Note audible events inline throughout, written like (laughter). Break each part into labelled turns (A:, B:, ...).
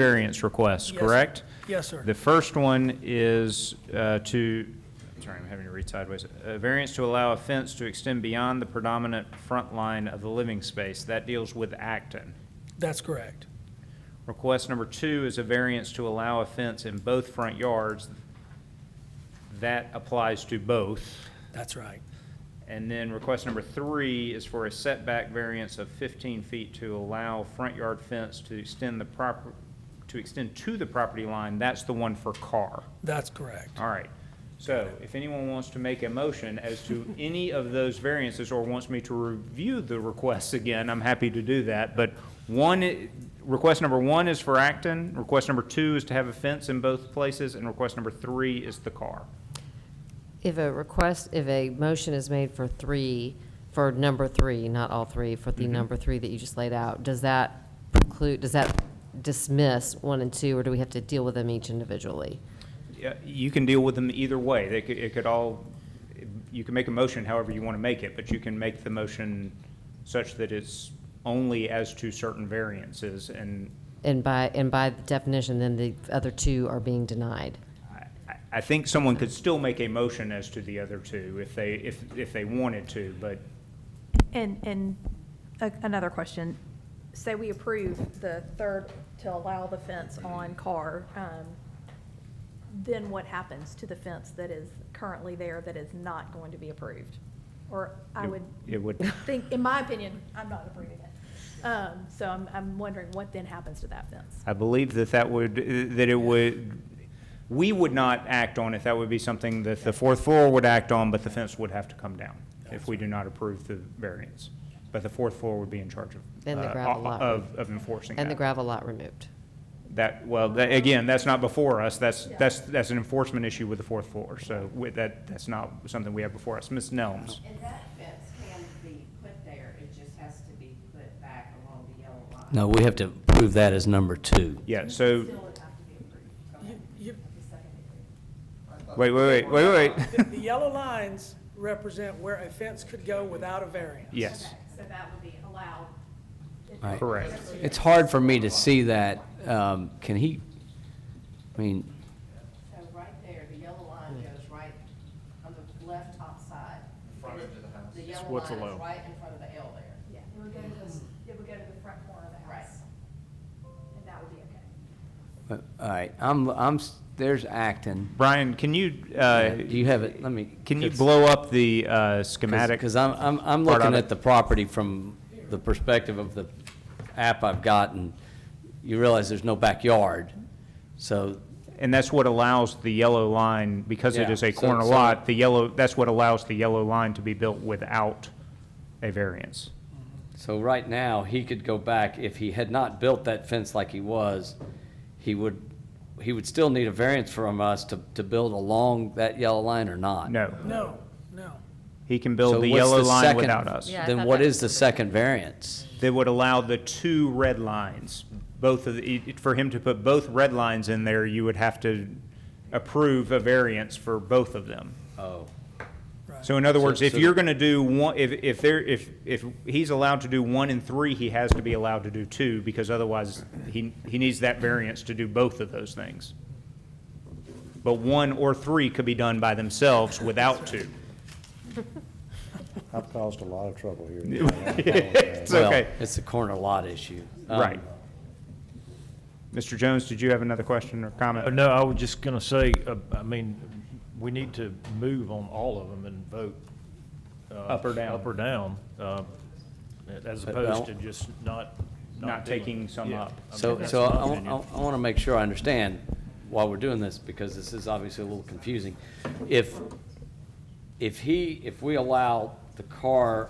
A: variance requests,
B: Yes.
A: correct?
B: Yes, sir.
A: The first one is uh, to, I'm sorry, I'm having to read sideways. A variance to allow a fence to extend beyond the predominant front line of the living space. That deals with Acton.
B: That's correct.
A: Request number two is a variance to allow a fence in both front yards. That applies to both.
B: That's right.
A: And then request number three is for a setback variance of 15 feet to allow front yard fence to extend the proper, to extend to the property line. That's the one for car.
B: That's correct.
A: All right. So if anyone wants to make a motion as to any of those variances or wants me to review the requests again, I'm happy to do that. But one, i- request number one is for Acton, request number two is to have a fence in both places, and request number three is the car.
C: If a request, if a motion is made for three, for number three, not all three, for the number three that you just laid out, does that preclude, does that dismiss one and two, or do we have to deal with them each individually?
A: Yeah, you can deal with them either way. They could, it could all, you can make a motion however you want to make it, but you can make the motion such that it's only as to certain variances, and
C: And by, and by definition, then the other two are being denied.
A: I- I, I think someone could still make a motion as to the other two if they, if, if they wanted to, but
D: And, and a- another question. Say we approve the third to allow the fence on Carr, um, then what happens to the fence that is currently there that is not going to be approved? Or I
A: It-
D: would.
A: it
D: (laughs)
A: would-
D: Think, in my opinion, I'm not approving it. Um, So I'm, I'm wondering what then happens to that fence?
A: I believe that that would, that it would, we would not act on it. That would be something that the fourth floor would act on, but the fence would have to come down if we do not approve the variance. But the fourth floor would be in charge of.
C: And the
A: uh,
C: gravel lot.
A: Of, of enforcing that.
C: And the gravel lot removed.
A: That, well, that, again, that's not before us. That's,
D: Yeah.
A: that's, that's an enforcement issue with the fourth floor. So with that, that's not something we have before us. Ms. Nelms?
E: And that fence can be put there, it just has to be put back along the yellow line.
F: No, we have to prove that as number two.
A: Yeah, so,
E: Still would have to be approved. Go ahead. The second
A: wait,
E: degree.
A: wait, wait, wait, wait.
B: The the yellow lines represent where a fence could go without a variance.
A: Yes,
E: So that would be allowed.
F: Right.
A: correct.
F: It's hard for me to see that. Um, Can he, I mean,
E: So right there, the yellow line goes right on the left top side. Front edge of the house. The yellow
A: what's
E: line
A: allowed.
E: is right in front of the L there.
D: Yeah, it would go to the, it would go to the front corner of the house. And that would be okay.
F: uh, all right, I'm, I'm, s- there's Acton.
A: Brian, can you,
F: Uh,
A: uh,
F: Do you have it? Let me.
A: Can you blow up the uh, schematic?
F: Because I'm, I'm, I'm
A: part of
F: looking
A: it?
F: at the property from the perspective of the app I've gotten. You realize there's no backyard, so
A: And that's what allows the yellow line, because it
F: Yeah,
A: is a
F: so-
A: corner
F: so-
A: lot, the yellow, that's what allows the yellow line to be built without a variance.
F: So right now, he could go back, if he had not built that fence like he was, he would, he would still need a variance from us to, to build along that yellow line or not.
A: No,
B: No, no.
A: he can
F: So
A: build the
F: what's
A: yellow line
F: second-
A: without us.
C: Yeah, I
F: Then
C: thought
F: what
C: that
F: is the second variance?
A: They would allow the two red lines, both of, the- e, for him to put both red lines in there, you would have to approve a variance for both of them.
F: Oh,
A: So in other
F: So-
A: words, if
F: so-
A: you're gonna do one, if, if there, if, if he's allowed to do one and three, he has to be allowed to do two, because otherwise, he, he needs that variance to do both of those things. But one or three could be done by themselves without two.
G: I've caused a lot of trouble here.
A: It's
F: well,
A: okay,
F: It's a corner lot issue. Um,
A: right. Mr. Jones, did you have another question or
F: Oh,
H: Uh,
A: comment?
H: No, I was just going to say, uh, I mean, we need to move on all of them and vote. uh,
A: Up or down.
H: Up or down, uh, as
F: But
H: opposed
F: don't-
H: to just not.
A: Not
H: doing it.
A: taking some
H: Yeah.
A: up.
H: I mean,
F: So,
H: that's
F: so
H: my
F: I,
H: opinion.
F: want to make sure I understand why we're doing this, because this is obviously a little confusing. If, if he, if we allow the car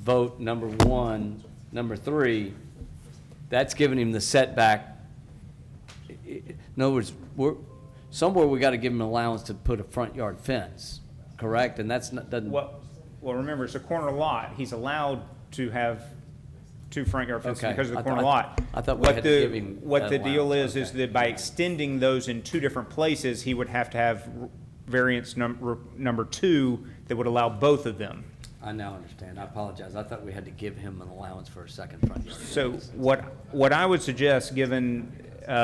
F: vote number one, number three, that's giving him the setback. I- I- In other words, we're, somewhere we got to give him allowance to put a front yard fence, correct? And that's not, doesn't.
A: Well, well, remember, it's a corner lot, he's allowed to have two front yard fences
F: Okay.
A: because of the
F: I thought-
A: corner
F: I-
A: lot.
F: I thought we
A: What
F: had to
A: the-
F: give him
A: What
F: that
A: the deal
F: allowance.
A: is, is
F: Okay.
A: that by extending those in two different places, he would have to have r- variance number, number two that would allow both of them.
F: I now understand. I apologize. I thought we had to give him an allowance for a second front yard.
A: So what, what I would suggest, given